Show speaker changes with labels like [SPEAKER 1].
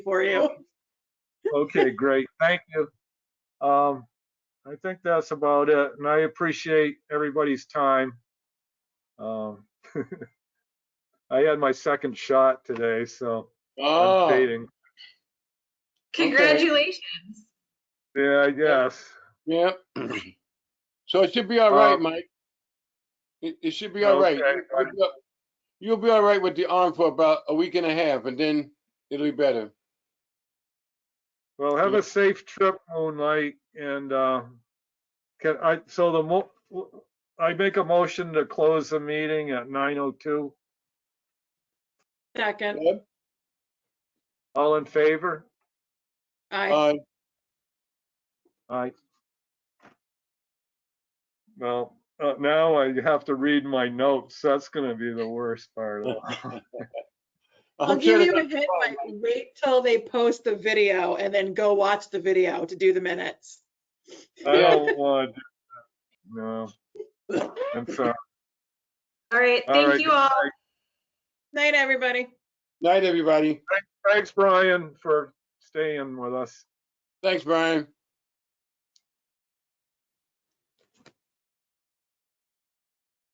[SPEAKER 1] for you.
[SPEAKER 2] Okay, great. Thank you. Um, I think that's about it, and I appreciate everybody's time. Um, I had my second shot today, so I'm
[SPEAKER 3] Oh,
[SPEAKER 2] dating.
[SPEAKER 4] Congratulations.
[SPEAKER 2] Yeah, I guess.
[SPEAKER 3] yeah. So it should be all right,
[SPEAKER 2] Um,
[SPEAKER 3] Mike. It, it should be all
[SPEAKER 2] Okay,
[SPEAKER 3] right. You- you'll be all- You'll be all right with the arm for about a week and a half and then it'll be better.
[SPEAKER 2] Well, have
[SPEAKER 3] Yeah.
[SPEAKER 2] a safe trip, Moonlight, and, uh, can I, so the mo, I make a motion to close the meeting at nine oh two.
[SPEAKER 1] Second,
[SPEAKER 2] All in favor?
[SPEAKER 1] I,
[SPEAKER 3] Uh,
[SPEAKER 2] Aye. Well, uh, now I have to read my notes. That's gonna be the worst part of it.
[SPEAKER 1] I'll
[SPEAKER 3] I'm sure
[SPEAKER 1] give
[SPEAKER 3] that-
[SPEAKER 1] you a hint, like, wait till they post the video and then go watch the video to do the minutes.
[SPEAKER 2] I
[SPEAKER 3] Yeah.
[SPEAKER 2] don't want to do that. No. I'm sorry.
[SPEAKER 4] All right,
[SPEAKER 2] All right,
[SPEAKER 4] thank you
[SPEAKER 2] good
[SPEAKER 4] all.
[SPEAKER 1] Night, everybody.
[SPEAKER 3] Night, everybody.
[SPEAKER 2] Thanks, Brian, for staying with us.
[SPEAKER 3] Thanks, Brian.